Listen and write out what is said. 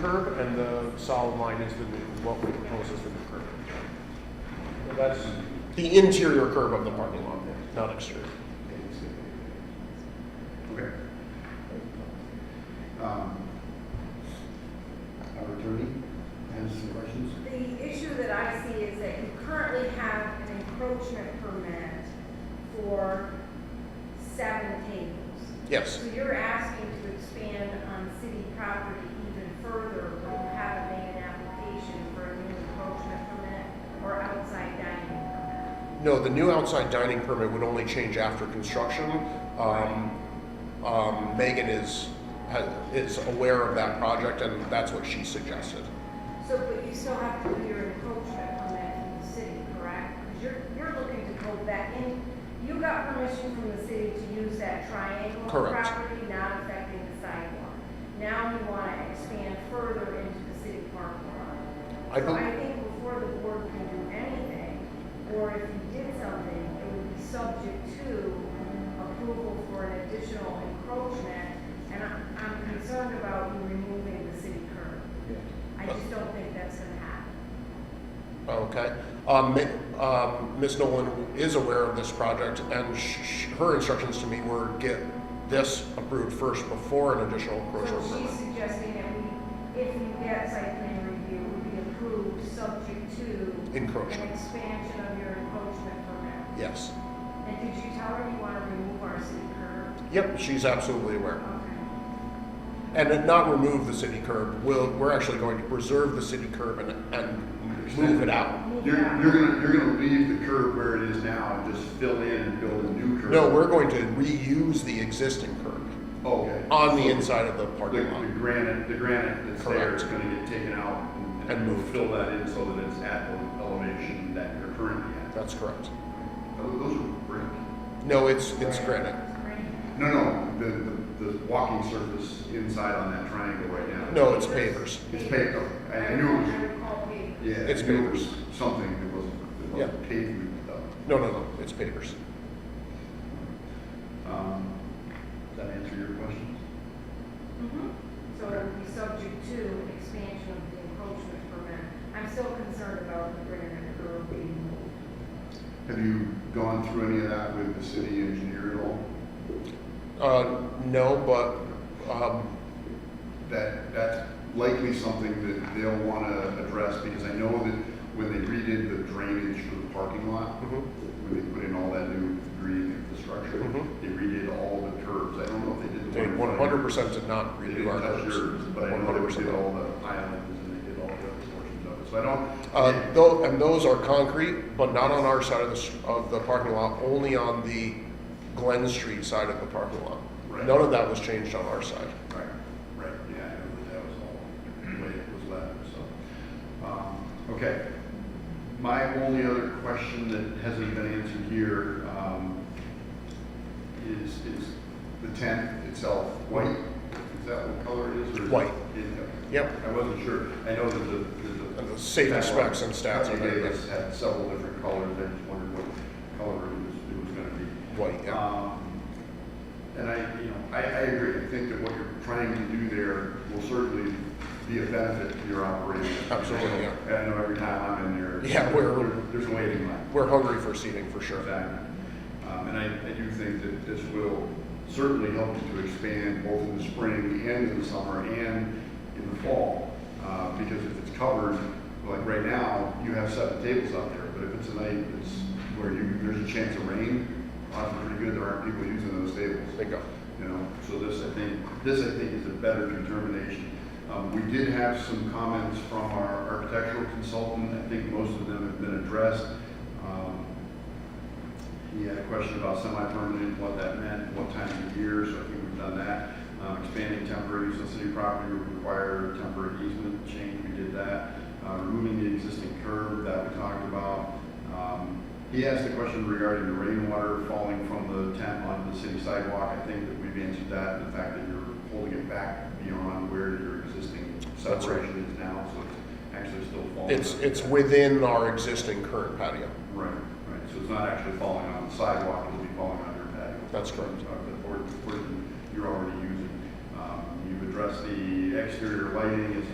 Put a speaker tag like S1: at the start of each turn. S1: curb, and the solid line is the new, what we propose is the new curb. And That's the interior curb of the parking lot, not exterior.
S2: Okay. Um, Our attorney has some questions?
S3: The issue that I see is that you currently have an encroachment permit for seven tables.
S1: Yes.
S3: So you're asking to expand on city property even further, but you haven't made an application for a new encroachment permit or outside dining permit.
S1: No, the new outside dining permit would only change after construction. Um, um, Megan is, ha- is aware of that project, and that's what she suggested.
S3: So, but you still have to do your encroachment permit from the city, correct? Because you're, you're looking to go back in, you got permission from the city to use that triangle of
S1: Correct.
S3: property, not affecting the sidewalk. Now you want to expand further into the city parking lot.
S1: I
S3: So
S1: bel-
S3: I think before the board can do anything, or if you did something, it would be subject to approval for an additional encroachment. And I- I'm concerned about you removing the city curb. I just don't think that's gonna happen.
S1: Okay. Um, Ma- um, Ms. Nolan is aware of this project, and sh- sh- her instructions to me were get this approved first before an additional
S3: So
S1: encroachment
S3: she's
S1: permit.
S3: suggesting that we, if you get site plan review, would be approved subject to an
S1: Encroachment,
S3: expansion of your encroachment permit.
S1: yes.
S3: And did you tell her you wanna remove our city curb?
S1: Yep, she's absolutely aware.
S3: Okay.
S1: And then not remove the city curb, we'll, we're actually going to preserve the city curb and, and move it out.
S2: You're, you're gonna, you're gonna leave the curb where it is now and just fill in and build a new curb?
S1: No, we're going to reuse the existing curb
S2: Oh, Okay.
S1: on the inside of the
S2: The,
S1: parking lot.
S2: the granite, the granite that's there is
S1: Correct.
S2: gonna get taken out and.
S1: And moved.
S2: Fill that in so that it's at the elevation that you're currently at.
S1: That's correct.
S2: Oh, Those are brick.
S1: No, it's, it's granite.
S2: No, no, the, the, the walking surface inside on that triangle right now.
S1: No, it's pavers.
S2: It's paved, though. I I knew it was.
S3: I recall paved.
S2: Yeah,
S1: It's
S2: it was
S1: papers.
S2: something that wasn't, that wasn't pavement though.
S1: No, no, no, it's pavers.
S2: Um, Does that answer your questions?
S3: Mhm. So it would be subject to an expansion of the encroachment permit. I'm still concerned about the granite curb being moved.
S2: Have you gone through any of that with the city engineer at all?
S1: Uh, no, but, um,
S2: That, that's likely something that they'll want to address because I know that when they redid the drainage for the parking lot,
S1: mhm.
S2: when they put in all that new green infrastructure,
S1: Mhm.
S2: they redid all the curbs. I don't know if they did the
S1: they
S2: one. in front
S1: one
S2: of
S1: hundred
S2: yours.
S1: percent did not
S2: They
S1: redo
S2: didn't
S1: our
S2: touch yours,
S1: curbs.
S2: but I know
S1: One
S2: they
S1: hundred
S2: did
S1: percent.
S2: all the islands and they did all the other portions of it. So I
S1: Uh,
S2: don't,
S1: though, and those are concrete, but not on our side of the, s- of the parking lot, only on the Glen Street side of the parking lot.
S2: Right.
S1: None of that was changed on our side.
S2: Right, right, yeah, I know that that was all the way it was left, so. um, Okay. My only other question that hasn't been answered here um, is, is the tent itself white? Is that what color it is? or is it-
S1: White.
S2: Yeah,
S1: Yep.
S2: I wasn't sure. I know that the- that the.
S1: And the safety specs and stats are
S2: Company
S1: there,
S2: gave us had several different colors, I just wondered what color it was, it was gonna be.
S1: White, yeah.
S2: Um, And I, you know, I, I agree, I think that what you're trying to do there will certainly be a benefit to your operation.
S1: Absolutely, yeah.
S2: And I know every time I'm in there.
S1: Yeah, we're-
S2: there- There's a waiting line.
S1: We're hungry for seating for sure.
S2: Exactly. Um, and I, I do think that this will certainly help you to expand both in the spring and in the summer and in the fall. Uh, because if it's covered, like right now, you have seven tables out there, but if it's a night that's where you, there's a chance of rain, odds are pretty good there aren't people using those tables
S1: Bingo.
S2: you know, so this, I think, this, I think, is a better determination. Um, we did have some comments from our architectural consultant, I think most of them have been addressed. Um, He had a question about semi-permanent, what that meant, what time of year, so I think we've done that. Um, expanding temporary use on city property would require temporary easement change, we did that. Uh, removing the existing curb that we talked about. Um, He asked a question regarding the rainwater falling from the tent onto the city sidewalk. I think that we've answered that, the fact that you're holding it back beyond where your existing
S1: That's right.
S2: separation is now, so it's actually still falling.
S1: It's, it's within our existing current patio.
S2: Right, right, so it's not actually falling on the sidewalk, it'll be falling on your patio.
S1: That's correct.
S2: Uh, The board, the board you're already using. Um, You've addressed the exterior lighting as